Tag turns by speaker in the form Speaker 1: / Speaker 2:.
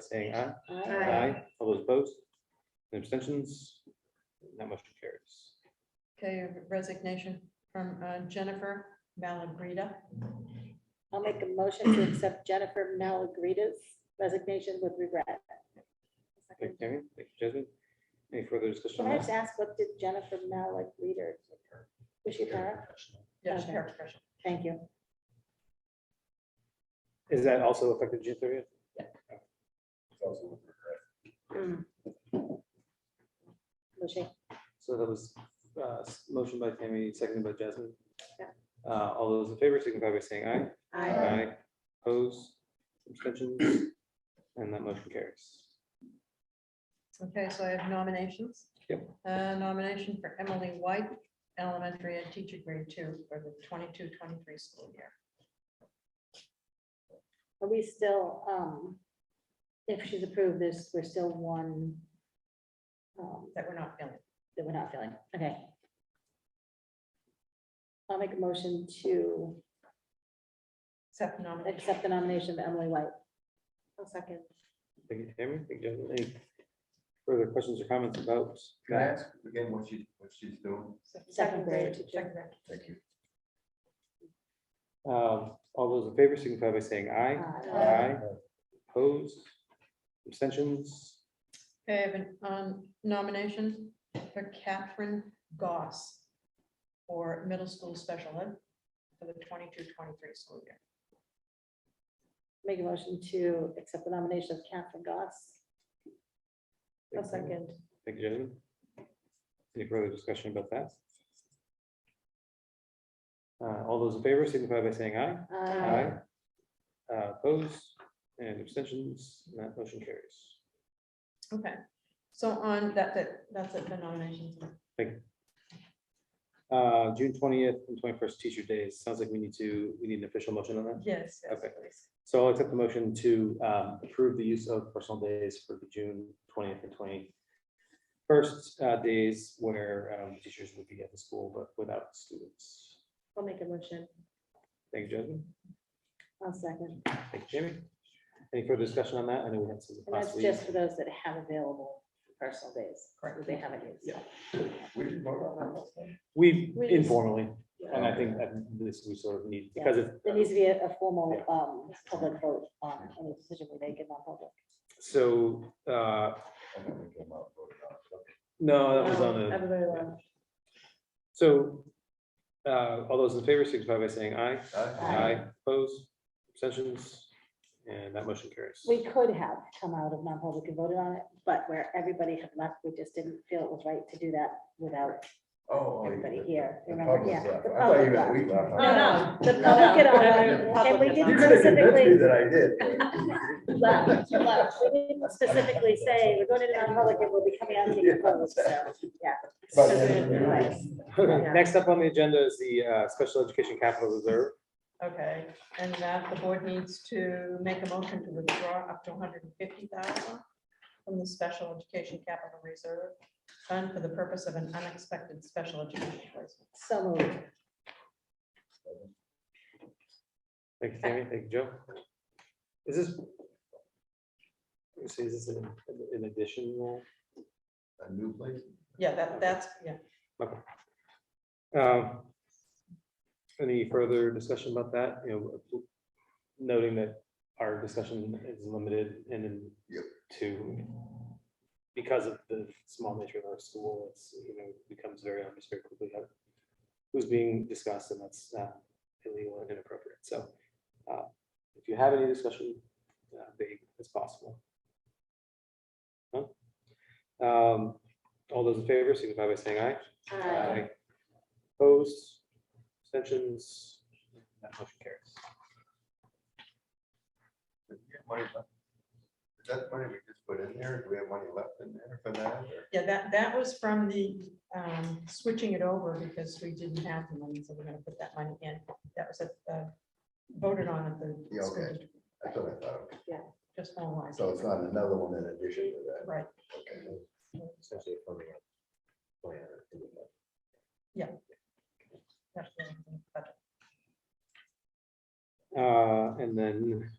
Speaker 1: saying aye.
Speaker 2: Aye.
Speaker 1: All those opposed? and Abstentions? That motion carries.
Speaker 3: Okay, resignation from uh, Jennifer Malagrida.
Speaker 2: I'll make a motion to accept Jennifer Malagrita's resignation with regret.
Speaker 1: Thank you, Tammy. Thank you, Jasmine. Any further discussion?
Speaker 2: Can
Speaker 1: on
Speaker 2: I
Speaker 1: that?
Speaker 2: just ask, what did Jennifer Malagrita? Was she para?
Speaker 3: Yes,
Speaker 2: Okay.
Speaker 3: paraprofessional.
Speaker 2: Thank you.
Speaker 1: Is that also effective June thirtieth?
Speaker 2: Was she?
Speaker 1: So that was uh, s- motion by Tammy, seconded by Jasmine.
Speaker 2: Yeah.
Speaker 1: Uh, All those in favor signify by saying aye.
Speaker 2: Aye.
Speaker 1: Opposed, abstentions, and that motion carries.
Speaker 3: Okay, so I have nominations.
Speaker 1: Yep.
Speaker 3: Uh, Nomination for Emily White, elementary and teacher grade two for the 22-23 school year.
Speaker 2: Are we still, um, if she's approved this, we're still one um,
Speaker 3: That we're not filling.
Speaker 2: that we're not filling? Okay. I'll make a motion to
Speaker 3: Except nomination.
Speaker 2: accept the nomination of Emily White. I'll second.
Speaker 1: Thank you, Tammy. Thank you, Jasmine. Any further questions or comments about?
Speaker 4: Can I ask again what she, what she's doing?
Speaker 2: Second grade teacher.
Speaker 3: Second grade.
Speaker 4: Thank you.
Speaker 1: Um, All those in favor signify by saying aye.
Speaker 2: Aye.
Speaker 3: Aye.
Speaker 1: Opposed, abstentions,
Speaker 3: Okay, I have an, um, nomination for Catherine Goss for middle school special ed for the 22-23 school year.
Speaker 2: Make a motion to accept the nomination of Catherine Goss.
Speaker 1: Thank you. Thank you, Jasmine. Any further discussion about that? Uh, All those in favor signify by saying aye.
Speaker 2: Aye.
Speaker 1: Uh, Opposed and abstentions, and that motion carries.
Speaker 3: Okay, so on, that's it, that's it, the nominations.
Speaker 1: Uh, June twentieth and twenty-first, teacher days. Sounds like we need to, we need an official motion on that.
Speaker 3: Yes, yes,
Speaker 1: Okay.
Speaker 3: please.
Speaker 1: So I'll accept the motion to um, approve the use of personal days for the June twentieth and twenty-first days where um, teachers would be at the school but without students.
Speaker 2: I'll make a motion.
Speaker 1: Thank you, Jasmine.
Speaker 2: I'll second.
Speaker 1: Thank you, Jamie. Any further discussion on that? I know we had some
Speaker 2: And that's
Speaker 1: last week.
Speaker 2: just for those that have available personal days, that they haven't used.
Speaker 1: Yeah.
Speaker 4: We did vote on that last time?
Speaker 1: We
Speaker 2: We-
Speaker 1: informally,
Speaker 2: Yeah.
Speaker 1: and I think that this we sort of need,
Speaker 2: Yeah.
Speaker 1: because it's
Speaker 2: There needs to be a a formal um, public vote on any decision we make in non-public.
Speaker 1: So, uh,
Speaker 4: And then we came out, voted on it.
Speaker 1: no, that was
Speaker 3: Um,
Speaker 1: on a,
Speaker 2: Everybody
Speaker 1: yeah. so, uh, all those in favor signify by saying aye.
Speaker 4: uh, Okay.
Speaker 2: Aye.
Speaker 1: Opposed, abstentions, and that motion carries.
Speaker 2: We could have come out of non-public and voted on it, but where everybody had left, we just didn't feel it was right to do that without
Speaker 4: Oh. oh, you-
Speaker 2: everybody here.
Speaker 4: The
Speaker 2: Remember,
Speaker 4: public
Speaker 2: yeah.
Speaker 4: left.
Speaker 2: the
Speaker 4: I thought you
Speaker 2: public
Speaker 4: meant we left.
Speaker 2: No, no, the
Speaker 4: No,
Speaker 2: public
Speaker 4: no.
Speaker 2: had all, and we
Speaker 4: You're
Speaker 2: didn't
Speaker 4: gonna convince me
Speaker 2: specifically,
Speaker 4: that I did.
Speaker 2: left, left. we didn't specifically say, we're going into non-public and we'll be coming out to the vote, so, yeah. So
Speaker 4: But then-
Speaker 2: good advice. Yeah.
Speaker 1: Next up on the agenda is the, uh, Special Education Capital Reserve.
Speaker 3: Okay, and that the board needs to make a motion to withdraw up to hundred and fifty thousand from the Special Education Capital Reserve Fund for the purpose of an unexpected special education placement.
Speaker 2: So moved.
Speaker 1: Thank you, Tammy. Thank you, Joe. Is this? let me see, Is this an an addition? role?
Speaker 4: A new place?
Speaker 3: Yeah, that, that's, yeah.
Speaker 1: Um, Any further discussion about that? You know, noting that our discussion is limited and then
Speaker 4: Yep.
Speaker 1: to because of the small nature of our school, it's, you know, becomes very obvious very quickly how- who's being discussed and that's uh, illegal and inappropriate. So uh, if you have any discussion, uh, big as possible. No? Um, All those in favor, signify by saying aye.
Speaker 2: Aye.
Speaker 1: Opposed, abstentions, that motion carries.
Speaker 4: Did we have money left? Is that money we just put in there? Do we have money left in there for that? or-
Speaker 3: Yeah, that, that was from the, um, switching it over because we didn't have the money, so we're gonna put that money in. That was at the, voted on at
Speaker 4: Yeah,
Speaker 3: the
Speaker 4: okay.
Speaker 3: school, district,
Speaker 4: That's what I thought.
Speaker 3: just formalized.
Speaker 4: So it's not another one in addition to that.
Speaker 3: Right,
Speaker 4: Okay.
Speaker 1: Essentially affirming our plan.
Speaker 3: that's the-
Speaker 1: Uh, and then